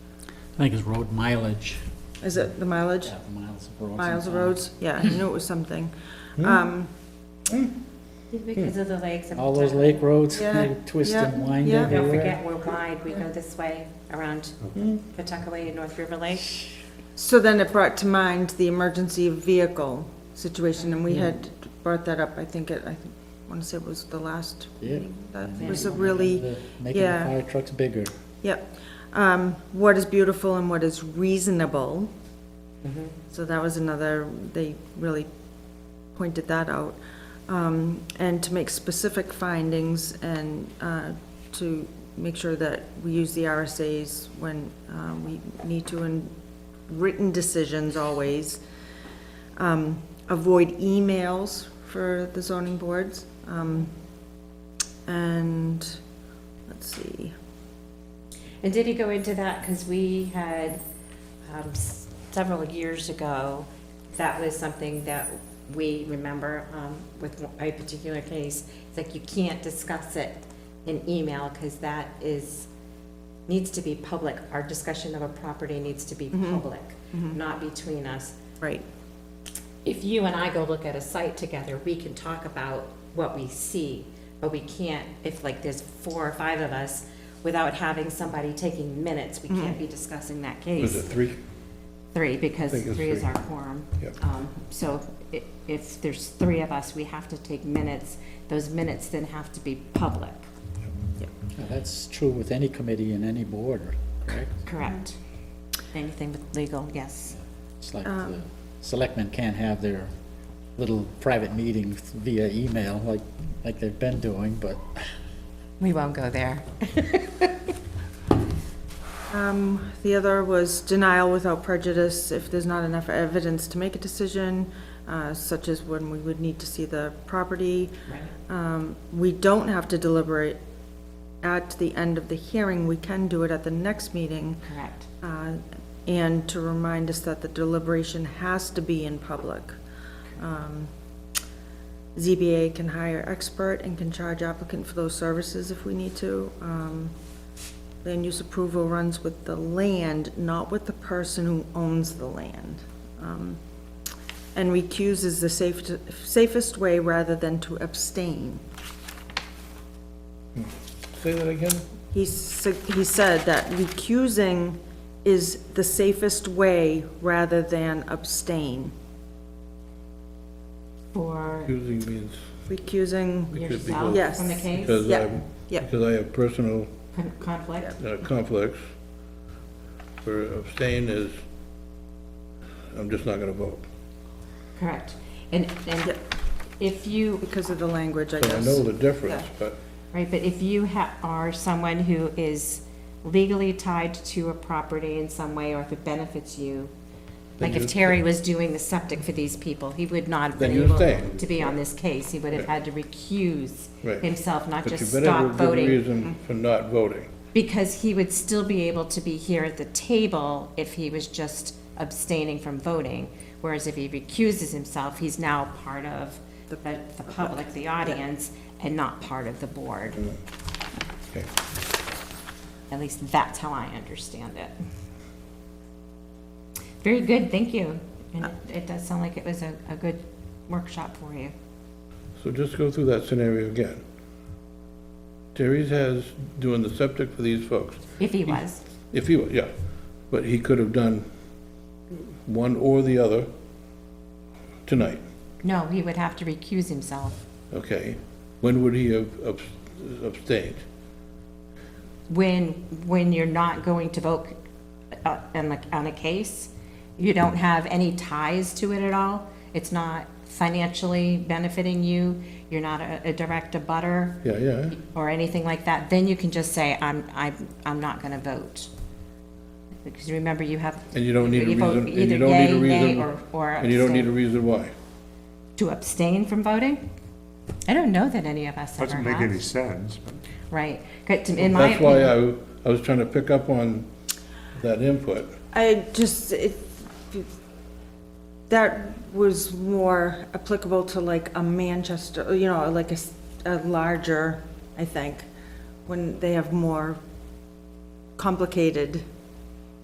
I think it's road mileage. Is it the mileage? Yeah, Miles of roads. Miles of and- roads? Yeah, I knew it was something. Hmm. Um, Because of the lakes. and All those lake roads, Yeah, they twist yeah, and wind yeah. Don't everywhere. forget, we're wide, we go this way around Pawtuckaway and North River Lake. So then it brought to mind the emergency vehicle situation, and we had brought that up, I think, it. I want to say it was the last Yeah. meeting. That And was a then really, the- Making the yeah. fire trucks bigger. yep. Um, What is beautiful and what is reasonable. So that was another, they really pointed that out. Um, And to make specific findings and uh, to make sure that we use the RSAs when uh, we need to in written decisions always. Um, Avoid emails for the zoning boards. Um, And, let's see, And did he go into that, because we had, um, s- several years ago, that was something that we remember, um, with a particular case, it's like you can't discuss it in email, because that is, needs to be public, our discussion of a property needs to be public, not between us. right, if you and I go look at a site together, we can talk about what we see, but we can't, if like there's four or five of us, without having somebody taking minutes, we can't be discussing that Was it case. three? Three, because I think it's three is three. our quorum. Yep. Um, So i- if there's three of us, we have to take minutes. Those minutes then have to be public, Yeah, That's true with any committee and any board, correct? correct? Anything with legal, yes. It's like Um, the selectmen can't have their little private meetings via email like, like they've been doing, but We won't go there. Um, The other was denial without prejudice if there's not enough evidence to make a decision, uh, such as when we would need to see the property. Um, We don't have to deliberate at the end of the hearing, we can do it at the next meeting, Correct. uh, and to remind us that the deliberation has to be in public. Um, ZBA can hire expert and can charge applicant for those services if we need to. Um, Land use approval runs with the land, not with the person who owns the land. Um, And recuse is the safe- safest way rather than to abstain. Say that again? He s- he said that recusing is the safest way rather than abstain. For Accusing means Recusing, It could be yourself both. from the Yes. case, because Yeah, I'm, yeah. because I have personal Con- conflict? uh, conflicts. For abstain is, I'm just not gonna vote. Correct. And, and Yep. if you, because of the language, I So I know guess. the difference, but right, but if you ha- are someone who is legally tied to a property in some way, or if it benefits you, like if Then you- Terry was doing the septic for these people, he would not have Then been you able abstain. to be on this case. He would have had to recuse Right. himself, not but you just better have stop a good voting. reason for not voting. Because he would still be able to be here at the table if he was just abstaining from voting. Whereas if he recuses himself, he's now part of the, the public, the audience, and not part of the board. Okay. At least that's how I understand it. Very good, thank you. And it- it does sound like it was a, a good workshop for you. So just go through that scenario again. Terry's has, doing the septic for these folks. If he was, If he, wa- yeah, but he could have done one or the other tonight, no, he would have to recuse himself okay? When would he have abs- abstained? when, when you're not going to vote uh, on the, on a case. You don't have any ties to it at all. It's not financially benefiting you. You're not a, a direct abutter. Yeah, yeah, or anything like that, then you can just say, I'm, I'm, I'm not gonna vote. Because remember, you have. and you don't need a you vote reason, and either you don't need a yay, nay, reason, or- Or and you don't need a abstain. reason why. To abstain from voting? I don't know that any of us ever Doesn't make any have. sense, but Right, 'Cause to- in my That's why opinion, I, I was trying to pick up on that input. I just, it, that was more applicable to like a Manchester, you know, like a, s- a larger, I think, when they have more complicated